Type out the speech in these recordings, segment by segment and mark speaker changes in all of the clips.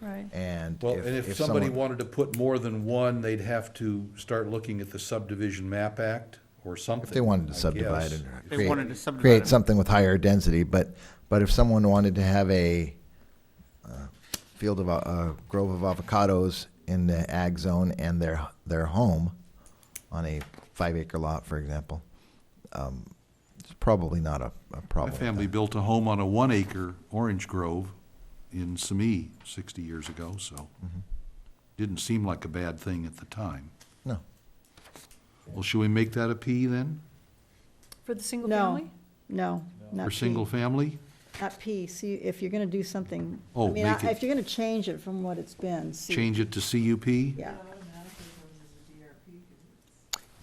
Speaker 1: Right.
Speaker 2: And
Speaker 3: Well, and if somebody
Speaker 2: someone-
Speaker 3: wanted to put more than one, they'd have to start looking at the subdivision map act or something.
Speaker 2: If they wanted to
Speaker 3: I
Speaker 2: subdivide
Speaker 3: guess.
Speaker 2: it. or
Speaker 4: They
Speaker 2: create-
Speaker 4: wanted to subdivide
Speaker 2: Create
Speaker 4: it.
Speaker 2: something with higher density, but, but if someone wanted to have a, uh, field of, a- a grove of avocados in the ag zone and their, their home on a five acre lot, for example, um, it's probably not a, a
Speaker 3: My
Speaker 2: problem.
Speaker 3: family built a home on a one acre orange grove in Simi sixty years ago, so.
Speaker 2: Mm-hmm.
Speaker 3: Didn't seem like a bad thing at the time.
Speaker 2: No,
Speaker 3: Well, should we make that a P then?
Speaker 1: For the single
Speaker 5: No.
Speaker 1: family?
Speaker 5: No, not
Speaker 3: For
Speaker 5: P.
Speaker 3: single family?
Speaker 5: Not P, see, if you're gonna do something, I
Speaker 3: Oh,
Speaker 5: mean, I-
Speaker 3: make it-
Speaker 5: if you're gonna change it from what it's been, see.
Speaker 3: Change it to CUP?
Speaker 5: Yeah,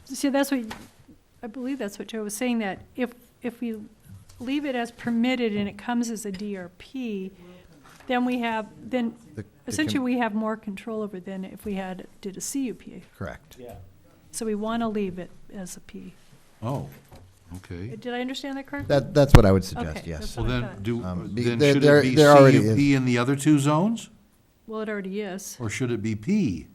Speaker 1: See, that's what, I believe that's what Joe was saying, that if, if we leave it as permitted and it comes as a DRP, then we have, then
Speaker 2: The- the com-
Speaker 1: essentially we have more control over than if we had, did a CUP.
Speaker 2: correct.
Speaker 1: So we want to leave it as a P.
Speaker 3: Oh, okay.
Speaker 1: Did I understand that correctly?
Speaker 2: That, that's what I would suggest,
Speaker 1: Okay,
Speaker 2: yes.
Speaker 1: that's-
Speaker 3: Well, then, do,
Speaker 2: Um, be-
Speaker 3: then
Speaker 2: there-
Speaker 3: should
Speaker 2: there-
Speaker 3: it be
Speaker 2: there already
Speaker 3: CUP in the other two zones?
Speaker 1: Well, it already is.
Speaker 3: Or should it be P?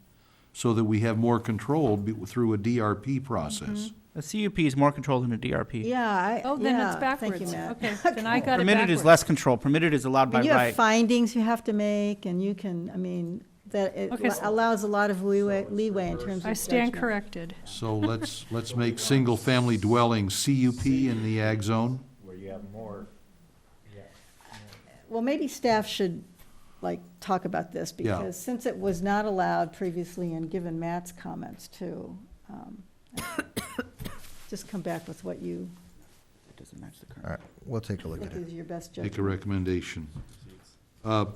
Speaker 3: So that we have more control be- through a DRP process?
Speaker 4: A CUP is more control than a DRP.
Speaker 5: yeah, I,
Speaker 1: Oh, then it's
Speaker 5: yeah, thank you,
Speaker 1: backwards.
Speaker 5: Matt.
Speaker 1: Okay, then I got it
Speaker 4: Permitted is
Speaker 1: backwards.
Speaker 4: less control. Permitted is allowed
Speaker 5: I
Speaker 4: by
Speaker 5: mean, You have
Speaker 4: right.
Speaker 5: findings you have to make, and you can, I mean, that it
Speaker 1: Okay, so-
Speaker 5: allows a lot of leeway, leeway in terms of
Speaker 1: I stand
Speaker 5: judgment.
Speaker 1: corrected.
Speaker 3: So let's, let's make single-family dwelling CUP in the ag zone?
Speaker 5: Well, maybe staff should, like, talk about this,
Speaker 3: Yeah.
Speaker 5: because since it was not allowed previously, and given Matt's comments too, um, just come back with what you
Speaker 4: It doesn't match the
Speaker 2: All
Speaker 4: current.
Speaker 2: right, we'll take a look
Speaker 5: think
Speaker 2: at it.
Speaker 5: is your best
Speaker 3: Make a
Speaker 5: judgment.
Speaker 3: recommendation. Uh,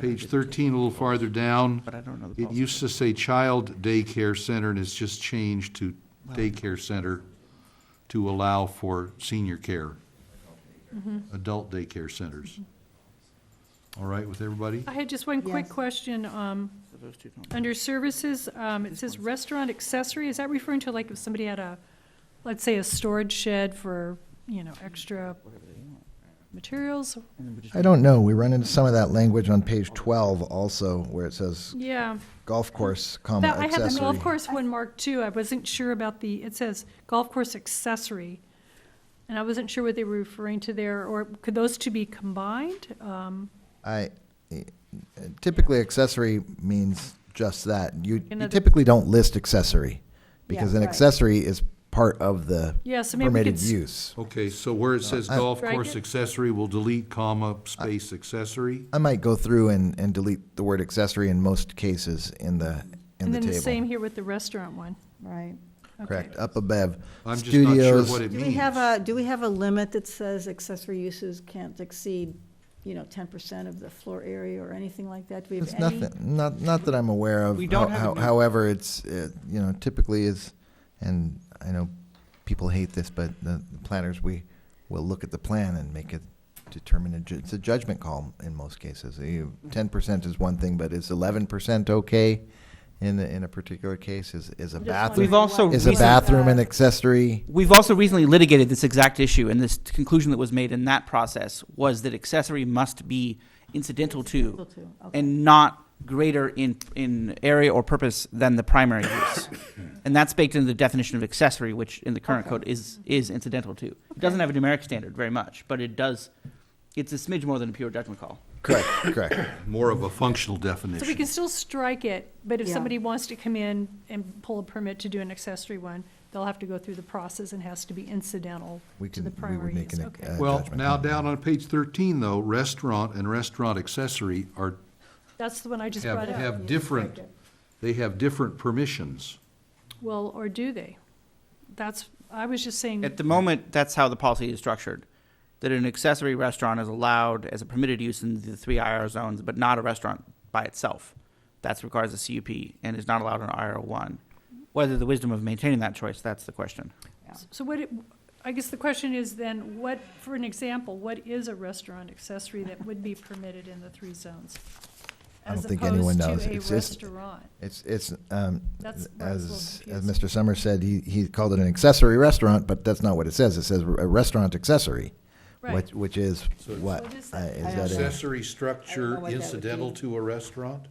Speaker 3: Page thirteen, a little farther down,
Speaker 4: But I don't know the
Speaker 3: it
Speaker 4: policy.
Speaker 3: used to say child daycare center, and it's just changed to daycare center to allow for senior care. Adult daycare centers. All right with everybody?
Speaker 1: I had just one quick
Speaker 5: Yes.
Speaker 1: question. Um,
Speaker 4: So those two don't-
Speaker 1: Under services, um, it says restaurant accessory, is that referring to like if somebody had a, let's say a storage shed for, you know, extra
Speaker 4: whatever they want.
Speaker 1: materials?
Speaker 4: And then we just-
Speaker 2: I don't know, we run into some of that language on page twelve also, where it says
Speaker 1: Yeah.
Speaker 2: golf course, comma,
Speaker 1: That, I
Speaker 2: Um, accessory.
Speaker 1: had the golf course one marked too, I wasn't sure about the, it says golf course accessory. And I wasn't sure what they were referring to there, or could those two be combined? Um,
Speaker 2: I, eh, typically accessory means just that. You you
Speaker 1: Another-
Speaker 2: typically don't list accessory, because
Speaker 5: Yeah,
Speaker 2: an
Speaker 5: right.
Speaker 2: accessory is part of the
Speaker 1: Yeah, so maybe we could.
Speaker 2: permitted
Speaker 1: s-
Speaker 2: use.
Speaker 3: Okay, so where it says
Speaker 2: I-
Speaker 3: golf
Speaker 1: Strike
Speaker 3: course
Speaker 1: it.
Speaker 3: accessory, we'll delete comma, space accessory?
Speaker 2: I might go through and, and delete the word accessory in most cases in the, in
Speaker 1: And
Speaker 2: the
Speaker 1: then the same
Speaker 2: table.
Speaker 1: here with the restaurant one.
Speaker 5: Right.
Speaker 1: Okay.
Speaker 2: Correct, up above.
Speaker 3: I'm just not sure
Speaker 2: Studios,
Speaker 3: what it
Speaker 5: Do
Speaker 3: means.
Speaker 5: we have a, do we have a limit that says accessory uses can't exceed, you know, ten percent of the floor area or anything like that? Do we
Speaker 2: it's
Speaker 5: have any?
Speaker 2: nothing, not, not that I'm aware of.
Speaker 4: We don't
Speaker 2: How-
Speaker 4: have a
Speaker 2: how-
Speaker 4: new-
Speaker 2: However, it's, uh, you know, typically is, and I know people hate this, but the the planners, we will look at the plan and make a determine, a ju- it's a judgment call in most cases. Ten percent is one thing, but is eleven percent okay in, a- in a particular case? Is, is a
Speaker 1: Just
Speaker 2: bathroom,
Speaker 4: We've also
Speaker 2: is a
Speaker 4: recent-
Speaker 2: bathroom an accessory?
Speaker 4: We've also recently litigated this exact issue, and this conclusion that was made in that process was that accessory must be incidental to
Speaker 5: Incidental to, okay.
Speaker 4: and not greater in, in area or purpose than the primary use. And that's baked into the definition of accessory, which in the current code is, is incidental to. It doesn't have a numeric standard very much, but it does, it's a smidge more than a pure judgment call.
Speaker 2: Correct, correct.
Speaker 3: More of a functional
Speaker 1: So we
Speaker 3: definition.
Speaker 1: can still strike it, but if
Speaker 5: Yeah.
Speaker 1: somebody wants to come in and pull a permit to do an accessory one, they'll have to go through the process and has to be incidental
Speaker 2: We
Speaker 1: to
Speaker 2: can,
Speaker 1: the
Speaker 2: we would
Speaker 1: primary
Speaker 2: make
Speaker 1: use,
Speaker 2: an,
Speaker 1: okay.
Speaker 2: uh,
Speaker 3: Well,
Speaker 2: judgment
Speaker 3: now
Speaker 2: call.
Speaker 3: down on page thirteen though, restaurant and restaurant accessory are,
Speaker 1: That's the one I just
Speaker 3: have,
Speaker 1: brought up.
Speaker 5: You
Speaker 3: have different,
Speaker 5: strike it.
Speaker 3: they have different permissions.
Speaker 1: Well, or do they? That's, I was just saying,
Speaker 4: At the moment, that's how the policy is structured, that an accessory restaurant is allowed as a permitted use in the three IR zones, but not a restaurant by itself. That requires a CUP and is not allowed in IR one. Whether the wisdom of maintaining that choice, that's the question.
Speaker 1: so what, it- I guess the question is then, what, for an example, what is a restaurant accessory that would be permitted in the three zones?
Speaker 2: I don't think anyone knows. It's
Speaker 1: As opposed to a
Speaker 2: just-
Speaker 1: restaurant.
Speaker 2: It's, it's, um,
Speaker 1: That's where I was a little
Speaker 2: as, as
Speaker 1: confused.
Speaker 2: Mr. Summers said, he, he called it an accessory restaurant, but that's not what it says. It says a restaurant accessory,
Speaker 6: Right.
Speaker 7: which, which is
Speaker 3: So-
Speaker 7: what?
Speaker 6: What is
Speaker 7: I-
Speaker 6: that?
Speaker 7: is
Speaker 2: I
Speaker 7: that
Speaker 2: don't
Speaker 7: a-
Speaker 2: know.
Speaker 3: Accessory
Speaker 2: I don't know
Speaker 3: structure
Speaker 2: what that would
Speaker 3: incidental
Speaker 2: be.
Speaker 3: to a restaurant?